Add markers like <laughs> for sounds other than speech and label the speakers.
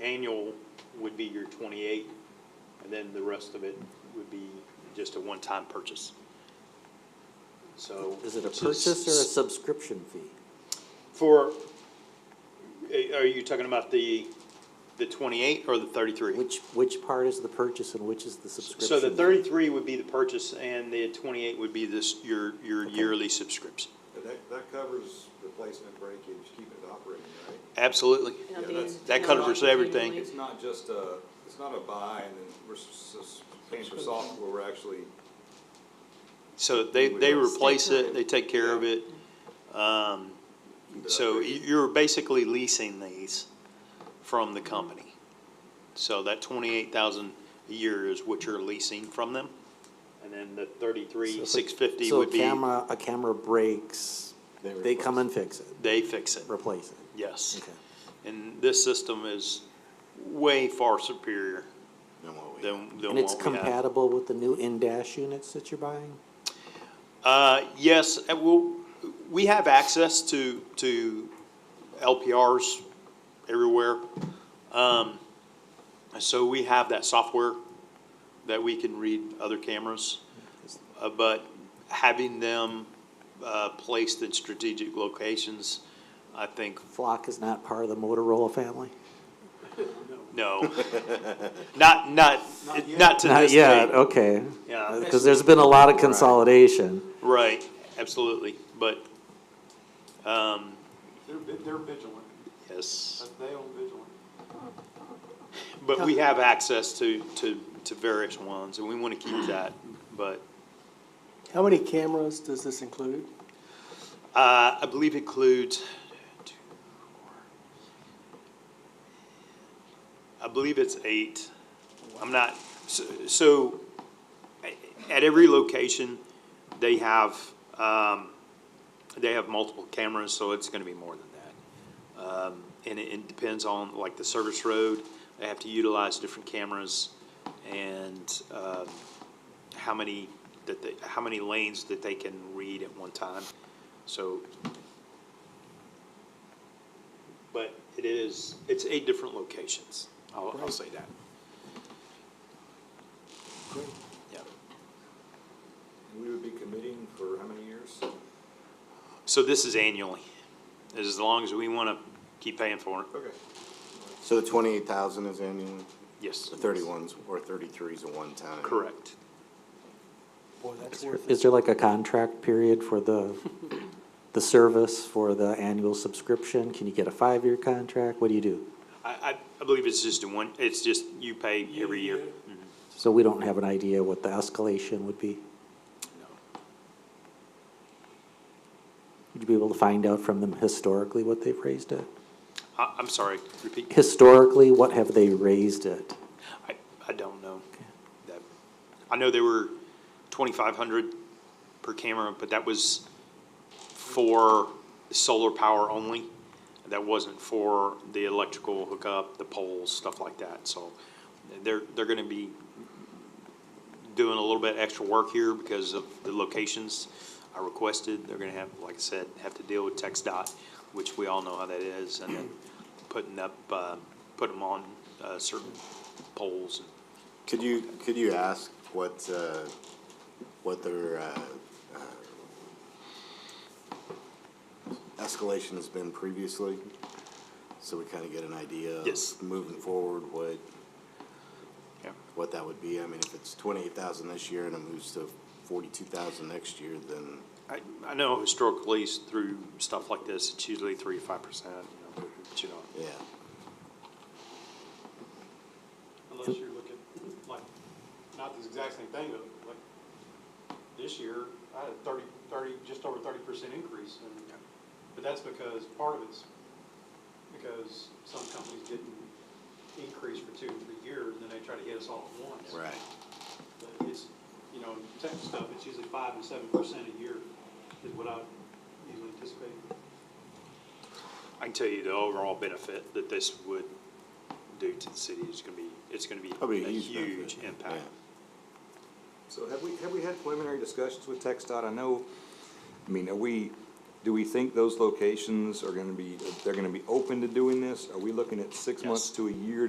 Speaker 1: annual would be your twenty-eight, and then the rest of it would be just a one-time purchase. So.
Speaker 2: Is it a
Speaker 1: s-
Speaker 2: purchase or a
Speaker 1: s-
Speaker 2: subscription fee?
Speaker 1: For, eh, are you talking about the, the twenty-eight or the thirty-three?
Speaker 2: Which, which part is the purchase and which is the subscription?
Speaker 1: So the
Speaker 2: fee?
Speaker 1: thirty-three would be the purchase, and the twenty-eight would be this, your, your yearly subscription.
Speaker 3: But that, that covers replacement breakage, keeping it operating, right?
Speaker 1: Absolutely.
Speaker 3: Yeah, that's-
Speaker 1: That covers everything.
Speaker 3: It's not just a, it's not a buy and then we're s- s- paying for software, we're actually,
Speaker 1: So they, they replace it, they take care of it. Um, so y- you're basically leasing these from the company. So that twenty-eight thousand a year is what you're leasing from them. And then the
Speaker 2: So
Speaker 1: thirty-three,
Speaker 2: if a-
Speaker 1: six fifty would
Speaker 2: So a
Speaker 1: be,
Speaker 2: camera, a camera breaks,
Speaker 3: They
Speaker 2: they come and fix it,
Speaker 1: they fix it,
Speaker 2: replace it.
Speaker 1: yes.
Speaker 2: Okay.
Speaker 1: And this system is way far superior
Speaker 3: Then what we-
Speaker 1: than, than
Speaker 2: And it's
Speaker 1: what we have.
Speaker 2: compatible with the new in-dash units that you're buying?
Speaker 1: Uh, yes, and we'll, we have access to, to LPRs everywhere. Um, so we have that software that we can read other cameras. Uh, but having them, uh, placed in strategic locations, I think,
Speaker 2: Flock is not part of the Motorola family?
Speaker 1: no. Not, not, not to
Speaker 2: Not
Speaker 1: this
Speaker 2: yet,
Speaker 1: day.
Speaker 2: okay.
Speaker 1: Yeah.
Speaker 2: Because there's been a lot of consolidation.
Speaker 1: Right, absolutely, but, um,
Speaker 4: They're, vi- they're vigilant,
Speaker 1: yes.
Speaker 4: That's- they own vigilant.
Speaker 1: But we have access to, to, to various ones, and we want to keep that, but,
Speaker 5: How many cameras does this include?
Speaker 1: uh, I believe includes, I believe it's eight. I'm not, so, so, a- at every location, they have, um, they have multiple cameras, so it's gonna be more than that. Um, and it, it depends on, like, the service road, they have to utilize different cameras and, um, how many, that they, how many lanes that they can read at one time, so. But it is, it's eight different locations, I'll, I'll say that. Yeah.
Speaker 3: And we would be committing for how many years?
Speaker 1: So this is annually, as long as we want to keep paying for it,
Speaker 3: Okay.
Speaker 6: So the twenty-eight thousand is annual,
Speaker 1: yes.
Speaker 6: the thirty-ones or thirty-threes a one-time?
Speaker 1: Correct.
Speaker 5: Boy, that's worth it.
Speaker 2: Is there like a contract period
Speaker 1: <laughs>
Speaker 2: for the, the service, for the annual subscription? Can you get a five-year contract? What do you do?
Speaker 1: I, I, I believe it's just a one, it's just you pay every year.
Speaker 2: So we don't have an idea what the escalation would be? Would you be able to find out from them historically what they've raised it?
Speaker 1: Mm-hmm. I, I'm sorry, repeat,
Speaker 2: Historically, what have they raised it?
Speaker 1: I, I don't know. That, I know they were twenty-five hundred per camera, but that was for solar power only. That wasn't for the electrical hookup, the poles, stuff like that, so they're, they're gonna be doing a little bit extra work here because of the locations I requested. They're gonna have, like I said, have to deal with Tex dot, which we all know how that is, and then putting up, uh, putting them on, uh, certain poles.
Speaker 6: Could you, could you ask what, uh, what their, uh, uh, escalation has been previously? So we kinda get an idea of
Speaker 1: Yes.
Speaker 6: moving forward, what,
Speaker 1: Yeah.
Speaker 6: what that would be. I mean, if it's twenty-eight thousand this year and it moves to forty-two thousand next year, then
Speaker 1: I, I know historically s- through stuff like this, it's usually three, to five percent, you know, but you know.
Speaker 6: yeah.
Speaker 4: Unless you're looking, like, not the exact same thing, but like, this year, I had a thirty, thirty, just over thirty percent increase, and, but that's because, part of it's because some companies didn't increase for two, or three years, and then they try to hit us all at once. But it's, you know, tech stuff, it's usually five to seven percent a year is what I would usually anticipate.
Speaker 1: I can tell you the overall benefit that this would do to the city is gonna be, it's gonna be
Speaker 6: Probably
Speaker 1: a
Speaker 6: benefit.
Speaker 1: huge impact.
Speaker 6: Yeah.
Speaker 3: So have we, have we had preliminary discussions with Tech dot? I know, I mean, are we, do we think those locations are gonna be, they're gonna be open to doing this? Are we looking at six months to a year to